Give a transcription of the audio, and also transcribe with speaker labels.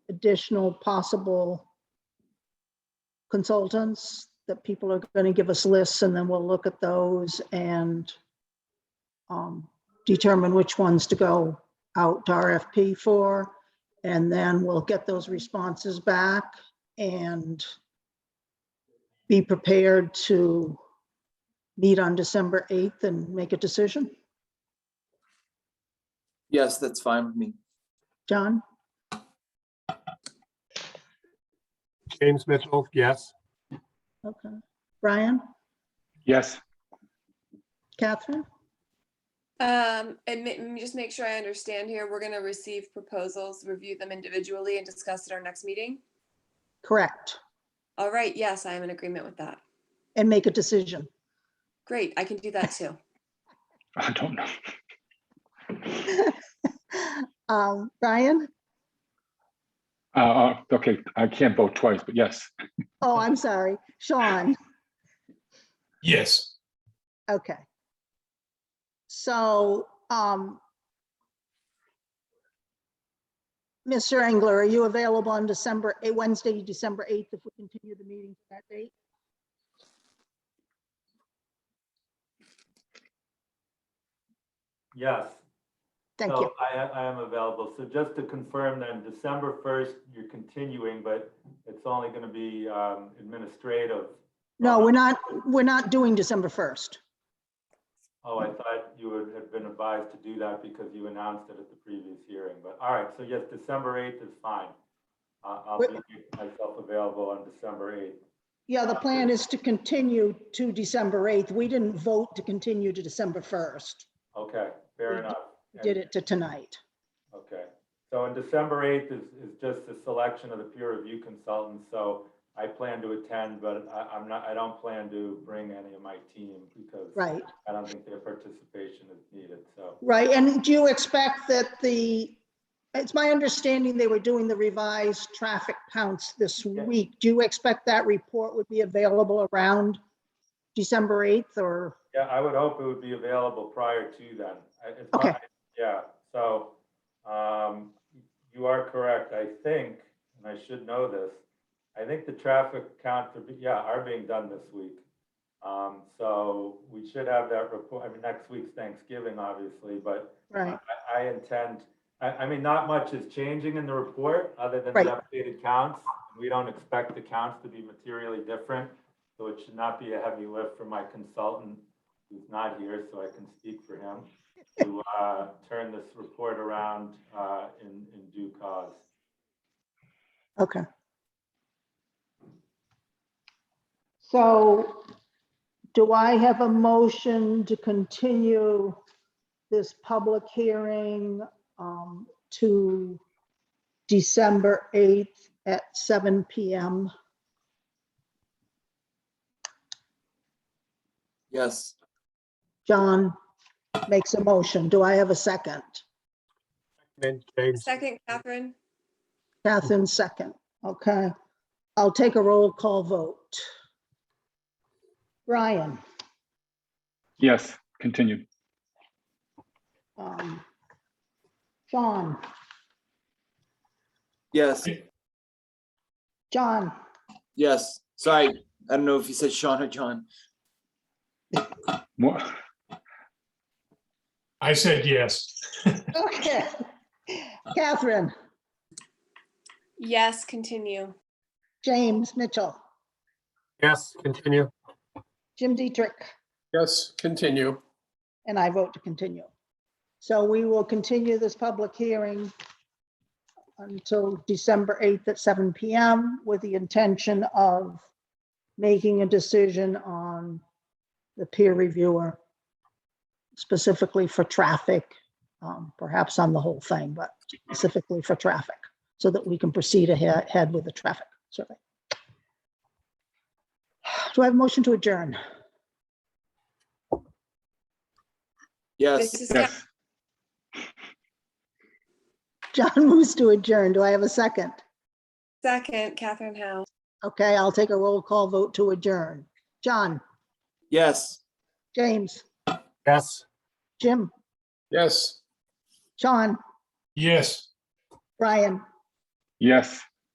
Speaker 1: additional possible consultants that people are going to give us lists and then we'll look at those and um, determine which ones to go out to RFP for. And then we'll get those responses back and be prepared to meet on December 8th and make a decision.
Speaker 2: Yes, that's fine with me.
Speaker 1: John,
Speaker 3: James Mitchell, yes.
Speaker 1: okay. Brian,
Speaker 4: Yes,
Speaker 1: Catherine,
Speaker 5: Um, and ma- m- just make sure I understand here, we're gonna receive proposals, review them individually and discuss at our next meeting?
Speaker 1: correct,
Speaker 5: All right, yes, I am in agreement with that.
Speaker 1: and make a decision.
Speaker 5: Great, I can do that too.
Speaker 4: I don't know.
Speaker 1: Um, Brian?
Speaker 4: Uh, uh, okay, I can't vote twice, but yes,
Speaker 1: Oh, I'm sorry. Sean?
Speaker 6: Yes,
Speaker 1: Okay. So, um, Mr. Engler, are you available on December, eh, Wednesday, December 8th, if we continue the meeting to that date?
Speaker 7: Yes.
Speaker 1: Thank
Speaker 7: so
Speaker 1: you.
Speaker 7: I, a- I am available. So just to confirm then, December 1st, you're continuing, but it's only going to be um, administrative.
Speaker 1: No, we're not, we're not doing December 1st.
Speaker 7: Oh, I thought you would have been advised to do that because you announced it at the previous hearing. But all right, so yes, December 8th is fine. I- I'll
Speaker 1: Wait.
Speaker 7: make myself available on December 8th.
Speaker 1: Yeah, the plan is to continue to December 8th. We didn't vote to continue to December 1st.
Speaker 7: Okay,
Speaker 1: We
Speaker 7: fair enough.
Speaker 1: We Did it to tonight.
Speaker 7: Okay, so on December 8th is, is just the selection of the peer review consultants, so I plan to attend, but I, I'm not, I don't plan to bring any of my team because
Speaker 1: Right,
Speaker 7: I don't think their participation is needed, so.
Speaker 1: right. And do you expect that the, it's my understanding they were doing the revised traffic counts this
Speaker 7: Yeah.
Speaker 1: week. Do you expect that report would be available around December 8th or,
Speaker 7: Yeah, I would hope it would be available prior to then. I- it's
Speaker 1: Okay.
Speaker 7: not- Yeah, so, um, you are correct, I think, and I should know this. I think the traffic counts are, be- yeah, are being done this week. Um, so we should have that report, I mean, next week's Thanksgiving, obviously, but
Speaker 1: right?
Speaker 7: I, I intend, I, I mean, not much is changing in the report other than
Speaker 1: Right.
Speaker 7: the updated counts. We don't expect the counts to be materially different, so it should not be a heavy lift for my consultant who's not here, so I can speak for him, to, uh, turn this report around, uh, in, in due cause.
Speaker 1: Okay. So do I have a motion to continue this public hearing um, to December 8th at seven PM?
Speaker 2: Yes,
Speaker 1: John makes a motion. Do I have a second?
Speaker 3: And James,
Speaker 5: Second, Catherine?
Speaker 1: Catherine, second. Okay. I'll take a roll call vote. Brian?
Speaker 4: yes, continued.
Speaker 1: um, Sean?
Speaker 2: yes,
Speaker 1: John,
Speaker 2: yes. Sorry, I don't know if you said Sean or John.
Speaker 4: What?
Speaker 6: I said yes.
Speaker 1: okay. Catherine,
Speaker 5: Yes, continue.
Speaker 1: James Mitchell,
Speaker 3: yes, continue.
Speaker 1: Jim Dietrich,
Speaker 3: Yes, continue.
Speaker 1: and I vote to continue. So we will continue this public hearing until December 8th at seven PM with the intention of making a decision on the peer reviewer specifically for traffic, um, perhaps on the whole thing, but specifically for traffic, so that we can proceed ahe- ahead with the traffic survey. Do I have a motion to adjourn?
Speaker 2: Yes,
Speaker 5: This is Catherine.
Speaker 4: Yes,
Speaker 1: John moves to adjourn. Do I have a second?
Speaker 5: Second, Catherine Howe.
Speaker 1: Okay, I'll take a roll call vote to adjourn. John,
Speaker 2: yes.
Speaker 1: James,
Speaker 3: Yes.
Speaker 1: Jim,
Speaker 3: Yes.
Speaker 1: Sean,
Speaker 6: Yes.
Speaker 1: Brian,
Speaker 4: yes.